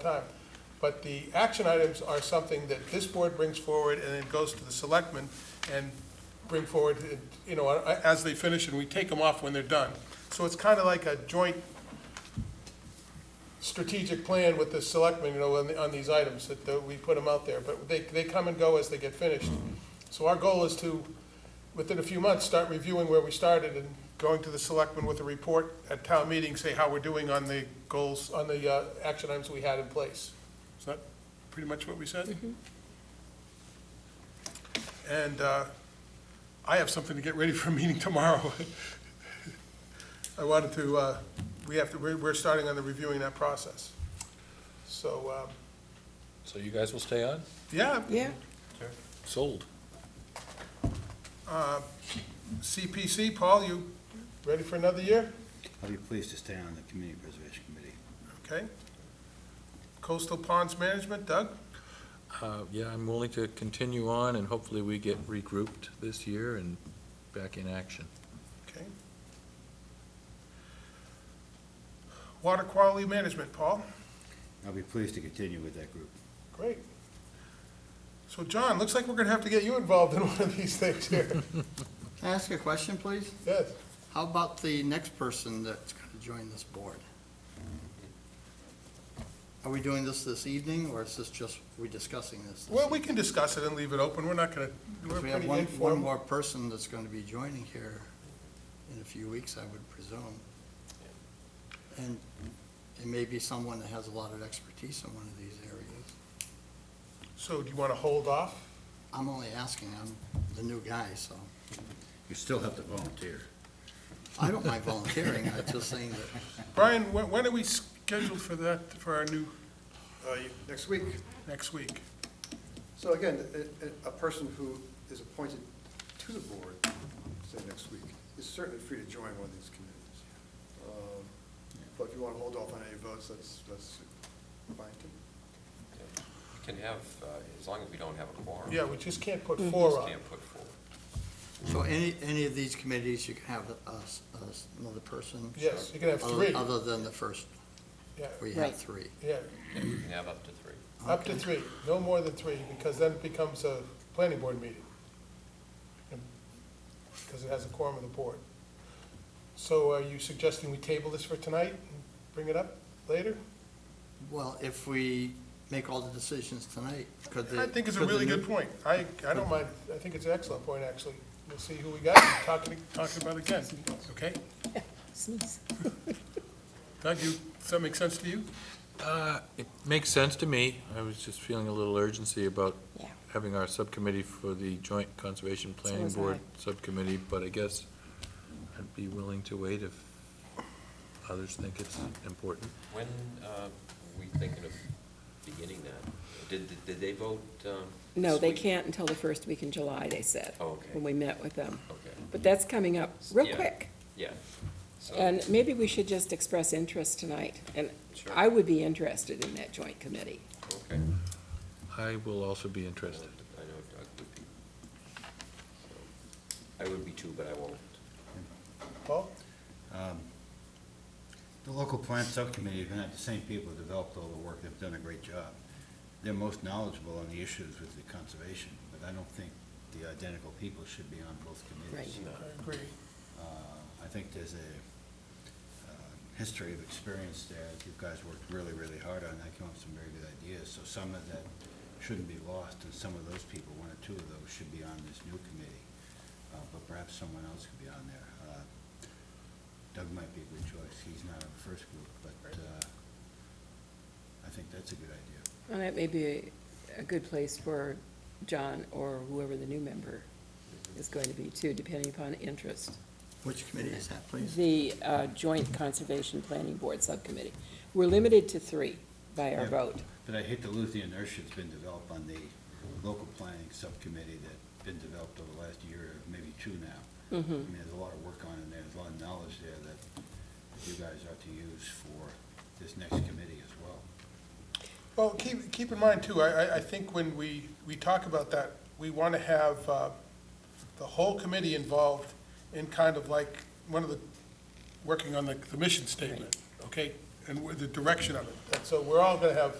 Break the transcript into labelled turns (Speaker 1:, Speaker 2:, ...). Speaker 1: time. But the action items are something that this board brings forward and then goes to the selectmen and bring forward, you know, as they finish, and we take them off when they're done. So it's kind of like a joint strategic plan with the selectmen, you know, on, the- on these items, that uh, we put them out there, but they, they come and go as they get finished. So our goal is to, within a few months, start reviewing where we started and going to the selectmen with a report at town meeting, say how we're doing on the goals, on the, uh, action items we had in place. Is that pretty much what we said? And, uh, I have something to get ready for a meeting tomorrow. I wanted to, uh, we have to, we're, we're starting on the reviewing that process. So, um,
Speaker 2: So you guys will stay on?
Speaker 1: yeah,
Speaker 3: Yeah,
Speaker 2: Sold.
Speaker 1: CPC, Paul, you ready for another year?
Speaker 4: I'll be pleased to stay on the Community Preservation Committee.
Speaker 1: Okay. Coastal Ponds Management, Doug?
Speaker 2: Uh, Yeah, I'm willing to continue on, and hopefully we get regrouped this year and back in action.
Speaker 1: Okay. Water Quality Management, Paul?
Speaker 4: I'll be pleased to continue with that group.
Speaker 1: Great. So John, looks like we're gonna have to get you involved in one of these things here.
Speaker 5: Can I ask you a question, please?
Speaker 1: Yes.
Speaker 5: How about the next person that's going to join this board? Are we doing this this evening, or is this just, we discussing this? this
Speaker 1: Well, we can discuss it and leave it open. We're not gonna, we're
Speaker 5: evening? Because we have
Speaker 1: pretty
Speaker 5: one, one
Speaker 1: informal.
Speaker 5: more person that's going to be joining here in a few weeks, I would presume. And it may be someone that has a lot of expertise in one of these areas.
Speaker 1: So do you wanna hold off?
Speaker 5: I'm only asking, I'm the new guy, so
Speaker 4: You still have to volunteer.
Speaker 5: I don't mind volunteering, I'm just saying that,
Speaker 1: Brian, wh- when are we scheduled for that, for our new,
Speaker 6: uh, next week.
Speaker 1: next week?
Speaker 6: So again, a- a a person who is appointed to the board, say next week, is certainly free to join one of these committees. Um, But if you want to hold off on any votes, that's, that's fine too.
Speaker 7: You can have, uh, as long as we don't have a quorum.
Speaker 1: Yeah, we just can't put
Speaker 7: we
Speaker 1: four
Speaker 7: just
Speaker 1: on.
Speaker 7: Can't put four.
Speaker 5: so any, any of these committees, you can have us, us, another person.
Speaker 1: Yes, you can have
Speaker 5: Other-
Speaker 1: three.
Speaker 5: Other than the first,
Speaker 1: Yeah,
Speaker 5: we
Speaker 3: Right.
Speaker 5: have three.
Speaker 1: yeah,
Speaker 7: Yeah, You can have up to three.
Speaker 1: up to
Speaker 5: Okay.
Speaker 1: three, no more than three, because then it becomes a planning board meeting. Because it has a quorum of the board. So are you suggesting we table this for tonight and bring it up later?
Speaker 5: Well, if we make all the decisions tonight, could the.
Speaker 1: I think it's a
Speaker 5: could the
Speaker 1: really
Speaker 5: new-
Speaker 1: good point. I, I don't mind, I think it's an excellent point, actually. We'll see who we got, and talk, it- talk about it again, okay?
Speaker 3: sneeze.
Speaker 1: Doug, you, does that make sense to you?
Speaker 2: Uh, It makes sense to me. I was just feeling a little urgency about
Speaker 3: Yeah.
Speaker 2: having our subcommittee for the Joint Conservation Planning
Speaker 3: was
Speaker 2: Board Subcommittee, but I guess I'd be willing to wait if others think it's important.
Speaker 7: When uh, we thinking of beginning that? Did, did- did they vote? um,
Speaker 3: No,
Speaker 7: this
Speaker 3: they
Speaker 7: week?
Speaker 3: can't until the first week in July, they said.
Speaker 7: Oh, okay.
Speaker 3: When we met with them.
Speaker 7: Okay,
Speaker 3: But that's coming up real
Speaker 7: Yeah. Oh.
Speaker 3: quick.
Speaker 7: yeah. So-
Speaker 3: And maybe we should just express interest tonight. And
Speaker 7: Sure.
Speaker 3: I would be interested in that joint committee.
Speaker 7: Okay.
Speaker 2: I will also be interested.
Speaker 7: I know Doug would be. I would be too, but I won't.
Speaker 1: Paul?
Speaker 4: The local plan subcommittee, you're gonna have the same people who developed all the work, they've done a great job. They're most knowledgeable on the issues with the conservation, but I don't think the identical people should be on both committees.
Speaker 3: Right.
Speaker 7: No.
Speaker 1: I agree.
Speaker 4: Uh, I think there's a uh, history of experience there, that you guys worked really, really hard on, that came up with some very good ideas, so some of that shouldn't be lost, and some of those people, one or two of those, should be on this new committee, Uh, but perhaps someone else could be on there. Uh, Doug might be a good choice, he's not on the first group, but uh, I think that's a good idea.
Speaker 3: And that may be a- a good place for John or whoever the new member is going to be too, depending upon interest.
Speaker 5: Which committee is that, please?
Speaker 3: The uh, Joint Conservation Planning Board Subcommittee. We're limited to three by our
Speaker 4: Yeah.
Speaker 3: vote.
Speaker 4: But I hate to lose the inertia that's been developed on the local planning subcommittee that's been developed over the last year, maybe two now. I mean, there's a lot of work on it, and there's a lot of knowledge there that you guys ought to use for this next committee as well.
Speaker 1: Well, keep, keep in mind too, I, I, I think when we, we talk about that, we want to have, uh, the whole committee involved in kind of like, one of the, working on the, the mission statement, okay? And with the direction of it. And so we're all going to have